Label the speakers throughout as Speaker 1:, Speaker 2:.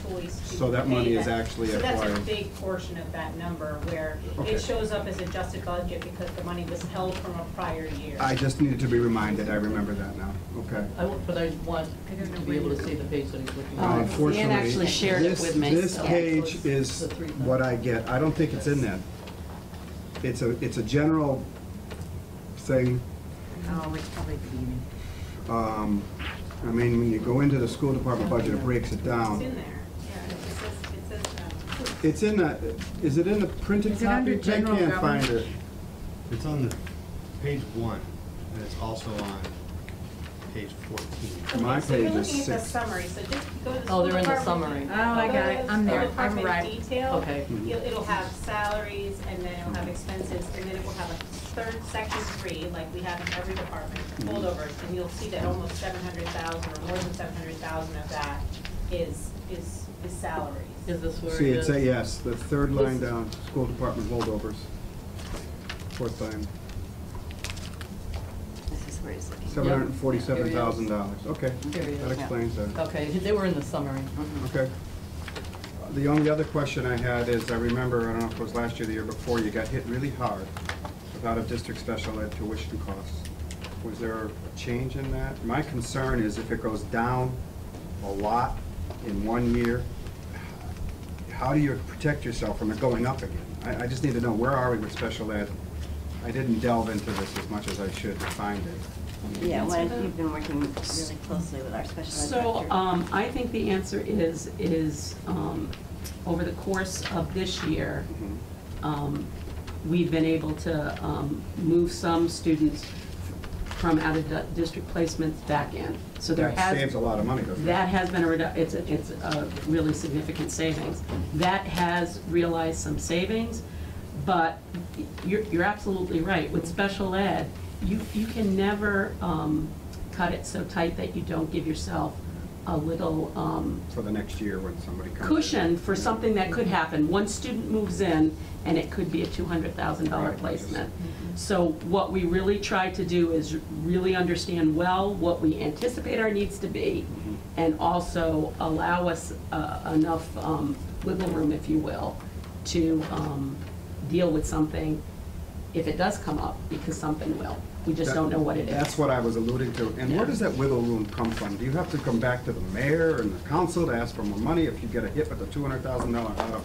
Speaker 1: employees to.
Speaker 2: So that
Speaker 1: pay
Speaker 2: money is
Speaker 1: them.
Speaker 2: actually
Speaker 1: So that's a
Speaker 2: acquired.
Speaker 1: big portion of that number where
Speaker 2: Okay.
Speaker 1: it shows up as adjusted budget because the money was held from a prior year.
Speaker 2: I just needed to be reminded, I remember that now, okay.
Speaker 3: I, wa- but I want to be able to see the page that he's looking
Speaker 2: Now,
Speaker 3: at.
Speaker 4: Oh.
Speaker 2: Unfortunately,
Speaker 4: actually shared it
Speaker 2: this-
Speaker 4: with me,
Speaker 2: This
Speaker 4: so-
Speaker 2: page is what I get, I don't think it's in that. It's a, it's a general thing,
Speaker 5: Oh, it's probably beginning.
Speaker 2: um, I mean, when you go into the school department budget, it breaks it
Speaker 1: It's
Speaker 2: down.
Speaker 1: in there, yeah, it says, it says, um,
Speaker 2: It's in the, is it in the printed
Speaker 5: Is it under
Speaker 2: copy? I
Speaker 5: general
Speaker 2: can't find it.
Speaker 5: government?
Speaker 6: It's on the, page one, and it's also on page fourteen.
Speaker 2: My
Speaker 1: Okay, so you're
Speaker 2: page is
Speaker 1: looking at the
Speaker 2: six.
Speaker 1: summary, so just go to the.
Speaker 3: Oh, they're in the
Speaker 1: school department.
Speaker 3: summary.
Speaker 5: Oh, I
Speaker 1: Go
Speaker 5: got
Speaker 1: to
Speaker 5: it.
Speaker 1: the
Speaker 5: I'm there.
Speaker 1: school
Speaker 5: I'm
Speaker 1: department
Speaker 5: right.
Speaker 1: Detail.
Speaker 3: Okay.
Speaker 1: You'll- It'll have salaries, and then it'll have expenses, and then it will have a third section three, like we have in every department, holdovers, and you'll see that almost seven hundred thousand, or more than seven hundred thousand of that is, is, is salaries.
Speaker 3: Is this where it
Speaker 2: See,
Speaker 3: is?
Speaker 2: it's a, yes, the third line
Speaker 3: This-
Speaker 2: down, school department holdovers. Fourth line,
Speaker 5: This is where it's looking.
Speaker 2: seven hundred and forty-seven thousand dollars, okay.
Speaker 3: There it is, Mm-hmm.
Speaker 2: That
Speaker 3: yeah.
Speaker 2: explains that.
Speaker 3: Okay, they were in the summary.
Speaker 2: Okay. The only other question I had is, I remember, I don't know if it was last year, or the year before, you got hit really hard with out-of-district special ed tuition costs. Was there a change in that? My concern is if it goes down a lot in one year, how do you protect yourself from it going up again? I, I just need to know, where are we with special ed? I didn't delve into this as much as I should to find it.
Speaker 5: Yeah, well, you've been working really closely with our special ed
Speaker 4: So,
Speaker 5: director.
Speaker 4: um, I think the answer is, is, um, over the course of this year,
Speaker 2: Mm-hmm.
Speaker 4: um, we've been able to, um, move some students from out of di- district placements back in. So there
Speaker 2: That saves
Speaker 4: has,
Speaker 2: a lot of money, doesn't it?
Speaker 4: that has been a redu, it's, a- it's a really significant savings. That has realized some savings, but you're, you're absolutely right. With special ed, you, you can never, um, cut it so tight that you don't give yourself a little, um,
Speaker 2: For the next year when somebody comes. in.
Speaker 4: cushion for something that could happen. One student moves in, and it could be a $200,000
Speaker 2: Right. Mm-hmm.
Speaker 4: placement. So what we really try to do is really understand well what we anticipate our needs to be,
Speaker 2: Mm-hmm.
Speaker 4: and also allow us uh, enough um, wiggle room, if you will, to um, deal with something if it does come up, because something will. We just don't know what it
Speaker 2: That's
Speaker 4: is.
Speaker 2: what I was alluding to. And where does that wiggle room come from? Do you have to come back to the mayor and the council to ask for more money if you get a hit with the two hundred thousand dollar out?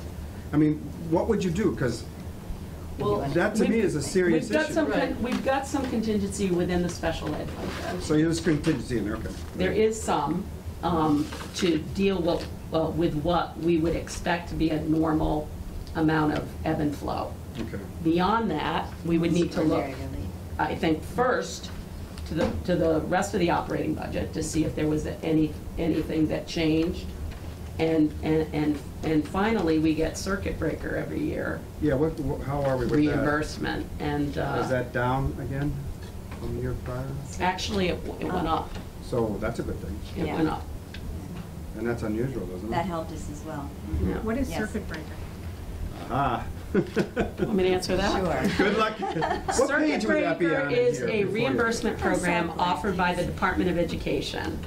Speaker 2: I mean, what would you do? Because
Speaker 4: Well,
Speaker 2: that to me
Speaker 4: we've-
Speaker 2: is a serious
Speaker 4: We've got some,
Speaker 2: issue.
Speaker 4: con-
Speaker 3: Right.
Speaker 4: we've got some contingency within the special ed budget.
Speaker 2: So there's contingency in there, okay.
Speaker 4: There is some um, to deal with, well, with what we would expect to be a normal amount of ebb and flow.
Speaker 2: Okay.
Speaker 4: Beyond that, we would need to look,
Speaker 5: Very relieved.
Speaker 4: I think, first to the, to the rest of the operating budget to see if there was any, anything that changed. And, and, and and finally, we get circuit breaker every year,
Speaker 2: Yeah, what, what- how are we with that?
Speaker 4: reimbursement. And uh,
Speaker 2: Is that down again from the year prior?
Speaker 4: actually, it it went up.
Speaker 2: So that's a good thing.
Speaker 4: It
Speaker 5: Oh, Yeah.
Speaker 4: went up.
Speaker 2: And that's unusual, isn't it?
Speaker 5: That helped us as well.
Speaker 4: Yeah.
Speaker 7: What is
Speaker 5: Yes.
Speaker 7: circuit breaker?
Speaker 2: Ah.
Speaker 4: Want me to answer that?
Speaker 5: Sure.
Speaker 2: Good luck. What
Speaker 4: Circuit
Speaker 2: page would that be
Speaker 4: Breaker
Speaker 2: on in
Speaker 4: is
Speaker 2: here
Speaker 4: a
Speaker 2: before you-
Speaker 4: reimbursement program
Speaker 5: Exactly.
Speaker 4: offered by the Department of Education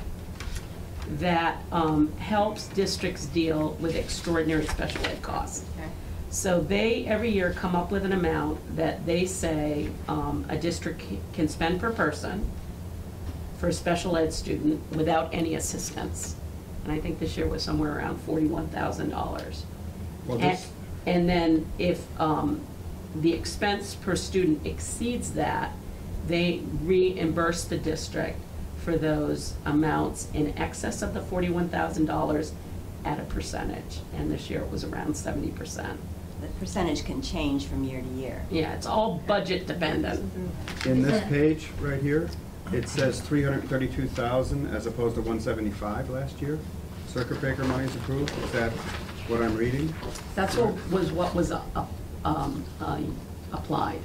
Speaker 4: that um, helps districts deal with extraordinary special ed costs.
Speaker 1: Okay.
Speaker 4: So they, every year, come up with an amount that they say um, a district can spend per person for a special ed student without any assistance. And I think this year was somewhere around $41,000.
Speaker 2: Well,
Speaker 4: And-
Speaker 2: this,
Speaker 4: And then if um, the expense per student exceeds that, they reimburse the district for those amounts in excess of the $41,000 at a percentage. And this year it was around 70%.
Speaker 5: The percentage can change from year to year.
Speaker 4: Yeah, it's all budget dependent.
Speaker 2: In this page right here, it says three hundred and thirty-two thousand as opposed to one seventy-five last year. Circuit breaker money is approved, is that what I'm reading?
Speaker 4: That's what was, what was uh, um, uh, applied,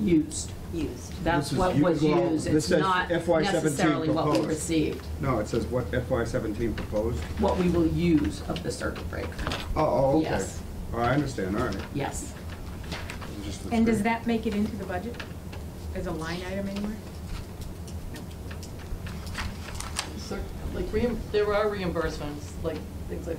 Speaker 4: used.
Speaker 5: Used.
Speaker 4: That's
Speaker 2: This is
Speaker 4: what was
Speaker 2: u- well,
Speaker 4: used.
Speaker 2: this
Speaker 4: It's
Speaker 2: says
Speaker 4: not
Speaker 2: FY 17
Speaker 4: necessarily what we
Speaker 2: proposed.
Speaker 4: received,
Speaker 2: No, it says what FY seventeen proposed.
Speaker 4: what we will use of the circuit breaker.
Speaker 2: Oh, oh, okay.
Speaker 4: Yes.
Speaker 2: Oh, I understand, all right.
Speaker 4: Yes.
Speaker 2: I'm just-
Speaker 7: And does that make it into the budget as a line item anywhere?
Speaker 3: So, Like, reim- there are reimbursements, like, things like that.